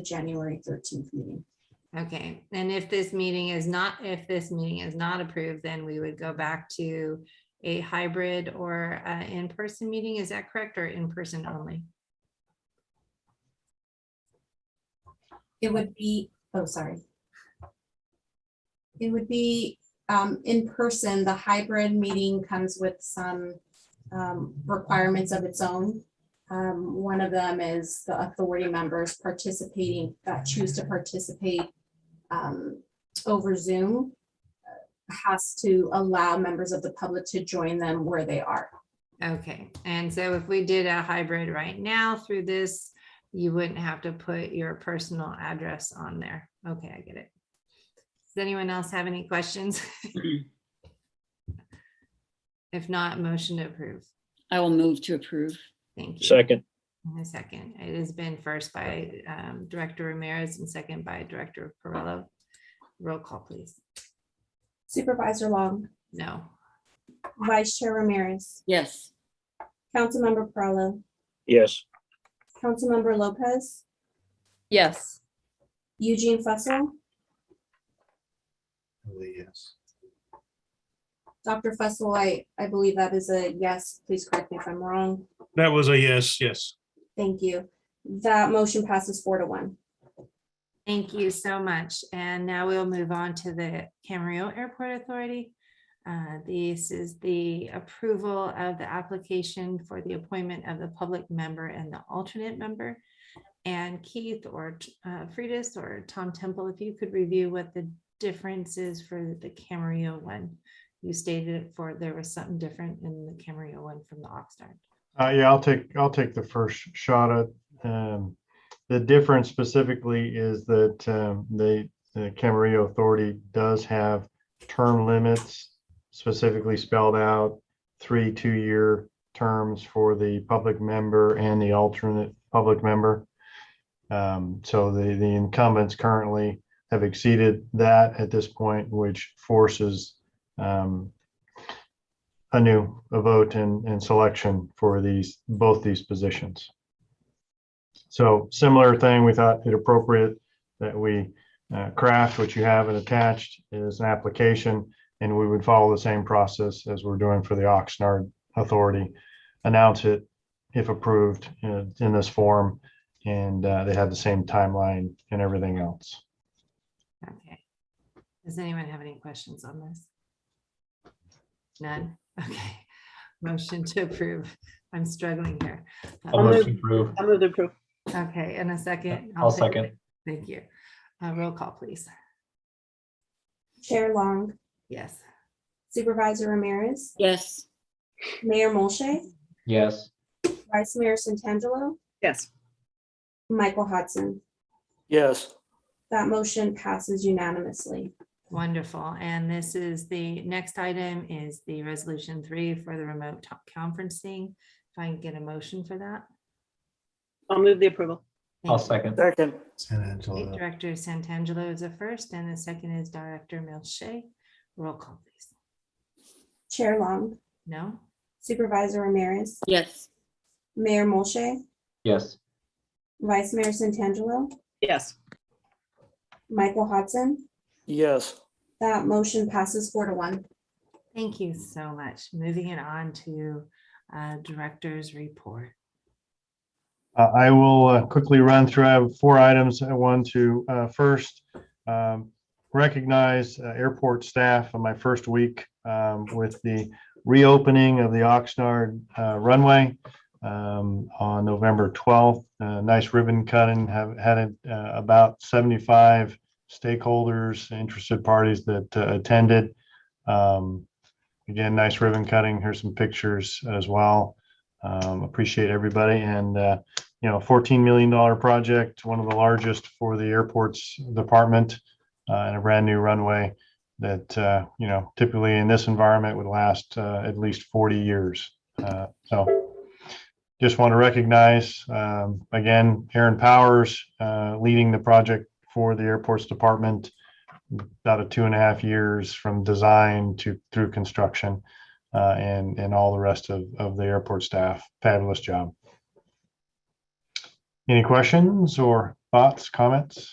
the January thirteenth meeting. Okay, and if this meeting is not, if this meeting is not approved, then we would go back to a hybrid or uh, in-person meeting. Is that correct or in-person only? It would be, oh, sorry. It would be um, in person, the hybrid meeting comes with some um, requirements of its own. Um, One of them is the authority members participating, that choose to participate um, over Zoom uh, has to allow members of the public to join them where they are. Okay, and so if we did a hybrid right now through this, you wouldn't have to put your personal address on there. Okay, I get it. Does anyone else have any questions? If not, motion to approve. I will move to approve. Thank you. Second, And A second. It has been first by um, Director Ramirez and second by Director Perrello. Roll call, please. Supervisor Long, No. Vice Chair Ramirez, Yes, Councilmember Perrello, yes, Councilmember Lopez, Yes. Eugene Fussell, Yes. Dr. Fussell, I, I believe that is a yes. Please correct me if I'm wrong. That was a yes, yes. Thank you. That motion passes four to one. Thank you so much. And now we'll move on to the Camarillo Airport Authority. Uh, This is the approval of the application for the appointment of the public member and the alternate member. And Keith or uh, Freitas or Tom Temple, if you could review what the difference is for the Camarillo one. You stated it for, there was something different in the Camarillo one from the Oxnard. Uh, yeah, I'll take, I'll take the first shot at, um, the difference specifically is that, um, the, the Camarillo Authority does have term limits specifically spelled out, three two-year terms for the public member and the alternate public member. Um, so the, the incumbents currently have exceeded that at this point, which forces, um, a new a vote and, and selection for these, both these positions. So similar thing, we thought it appropriate that we uh, craft what you have and attached is an application. And we would follow the same process as we're doing for the Oxnard Authority. Announce it if approved uh, in this form. And uh, they have the same timeline and everything else. Okay. Does anyone have any questions on this? None? Okay. Motion to approve. I'm struggling here. Um, I'll move. approve. I move to approve. Okay, and a second. I'll take second. it. Thank you. Uh, Roll call, please. Chair Long, Yes. Supervisor Ramirez, yes, Mayor Molche, Yes. Vice Mayor Santangelo, Yes. Michael Hodson. yes, That motion passes unanimously. Wonderful. And this is the next item is the resolution three for the remote to- conferencing. If I can get a motion for that. I'll move the approval. I'll Thank you. second. second, San Angelo. Director Santangelo is the first and the second is Director Milche. Roll call, please. Chair Long, No? Supervisor Ramirez, yes, Mayor Molche, Yes. Vice Mayor Santangelo, Yes. Michael Hodson. yes, That motion passes four to one. Thank you so much. Moving it on to uh, Director's Report. Uh, I will uh, quickly run through, I have four items I want to, uh, first, um, recognize uh, airport staff on my first week, um, with the reopening of the Oxnard uh, runway, um, on November twelfth. Uh, nice ribbon cutting, have had uh, about seventy-five stakeholders, interested parties that uh, attended. Um, again, nice ribbon cutting, here's some pictures as well. Um, appreciate everybody and, uh, you know, fourteen million dollar project, one of the largest for the airport's department. Uh, and a brand new runway that, uh, you know, typically in this environment would last, uh, at least forty years. Uh, so just want to recognize, um, again, Aaron Powers, uh, leading the project for the airport's department. About a two and a half years from design to through construction, uh, and, and all the rest of, of the airport staff. Fabulous job. Any questions or Thoughts, comments?